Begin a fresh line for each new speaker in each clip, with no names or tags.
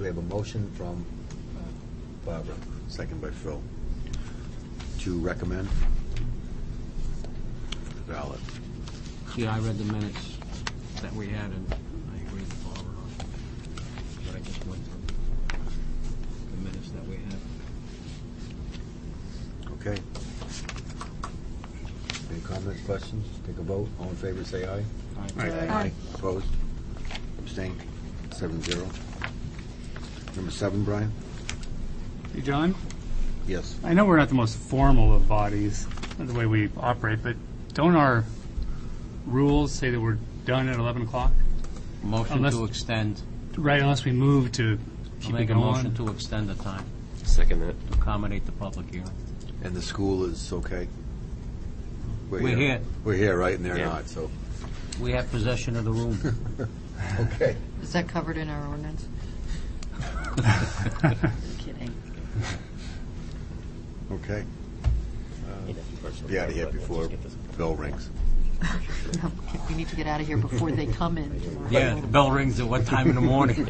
we have a motion from uh, Barbara, second by Phil, to recommend the ballot.
Yeah, I read the minutes that we had, and I agree with Barbara on what I just went through. The minutes that we had.
Okay. Any comments, questions? Take a vote. All in favor, say aye.
All right.
Aye.
Opposed? Abstained? Seven zero. Number seven, Brian?
Hey, John,
Yes.
I know we're not the most formal of bodies, not the way we operate, but don't our rules say that we're done at 11 o'clock?
Motion
Unless-
to extend,
Right, unless we move to
I'll
keep it
make a motion
going?
to extend the time
Second that.
to accommodate the public hearing.
And the school is okay?
We're here.
We're here, right, and they're
Yeah.
not, so,
We have possession of the room.
okay.
Is that covered in our ordinance? Kidding.
Okay. Uh, Be out of here before bell rings.
No, We need to get out of here before they come in tomorrow.
Yeah, the bell rings at what time in the morning?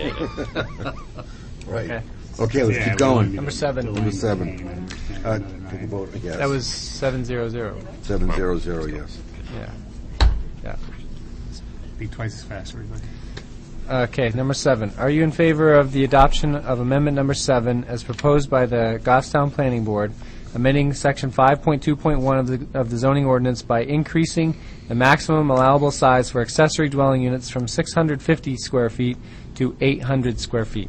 Right. Okay, let's keep going.
Number seven.
Number seven. Uh, Take a vote, I guess.
That was seven zero zero.
Seven zero zero, yes.
Yeah. Yeah.
Be twice as fast, everybody.
Okay, number seven. Are you in favor of the adoption of amendment number seven as proposed by the Goffstown Planning Board, amending section five point two point one of the, of the zoning ordinance by increasing the maximum allowable size for accessory dwelling units from six hundred fifty square feet to eight hundred square feet?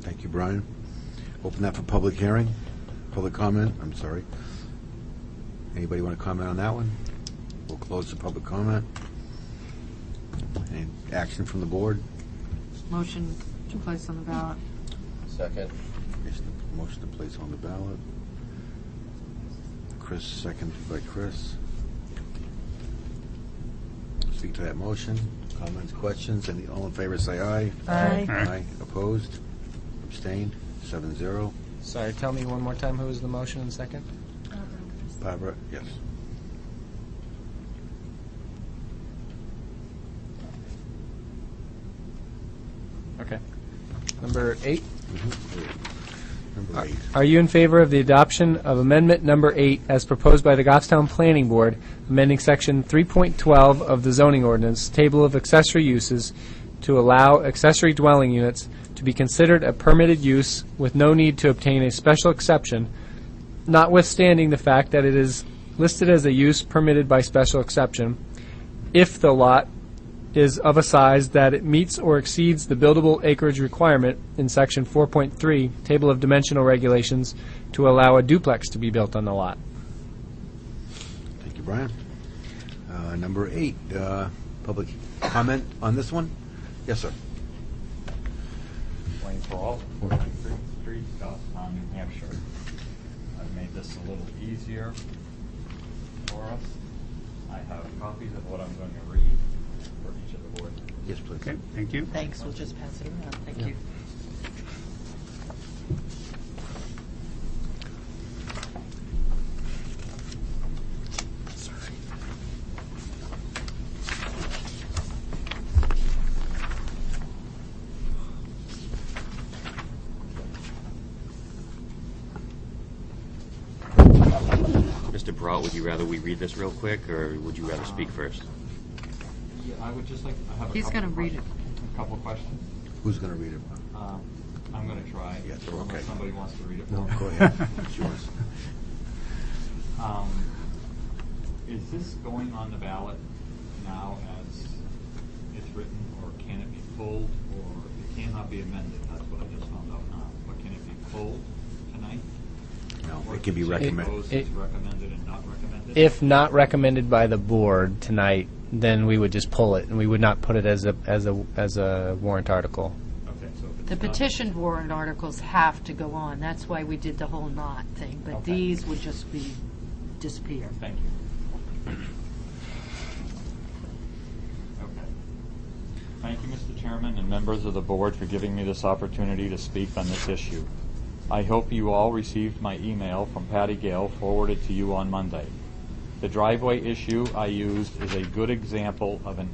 Thank you, Brian. Open that for public hearing, public comment, I'm sorry. Anybody want to comment on that one? We'll close the public comment. Any action from the board?
Motion to place on the ballot.
Second.
Is the Motion to place on the ballot. Chris, seconded by Chris. Speak to that motion. Comments, questions, and all in favor, say aye.
Aye.
Aye.
Opposed? Abstained? Seven zero.
Sorry, tell me one more time who was the motion and second?
Barbara, yes.
Okay. Number eight?
Number eight.
Are you in favor of the adoption of amendment number eight as proposed by the Goffstown Planning Board, amending section 3.12 of the zoning ordinance, table of accessory uses, to allow accessory dwelling units to be considered a permitted use with no need to obtain a special exception, notwithstanding the fact that it is listed as a use permitted by special exception, if the lot is of a size that it meets or exceeds the buildable acreage requirement in section 4.3, table of dimensional regulations, to allow a duplex to be built on the lot.
Thank you, Brian. Uh, Number eight, uh, public comment on this one? Yes, sir.
Wayne Peralta, 43rd Street, Goffstown, New Hampshire. I've made this a little easier for us. I have copies of what I'm going to read for each of the board.
Yes, please.
Okay, thank you.
Thanks, we'll just pass it around. Thank you.
Mr. Peralt, would you rather we read this real quick, or would you rather speak first?
Yeah, I would just like, I have a couple.
He's gonna read
questions- a Couple questions.
Who's going to read it?
Um, I'm going to try.
Yes,
unless
okay.
Somebody wants to read it.
No,
for me.
go ahead. It's yours.
Um, Is this going on the ballot now as it's written, or can it be pulled, or it cannot be amended? That's what I just found out now. But can it be pulled tonight?
No,
Or
it can be
is
recommended.
proposed as recommended and not recommended?
If not recommended by the board tonight, then we would just pull it, and we would not put it as a, as a, as a warrant article.
Okay, so if it's
The
not-
petitioned warrant articles have to go on. That's why we did the whole not thing, but
Okay.
these would just be, disappear.
Thank you. Okay. Thank you, Mr. Chairman and members of the board for giving me this opportunity to speak on this issue. I hope you all received my email from Patty Gale forwarded to you on Monday. The driveway issue I used is a good example of an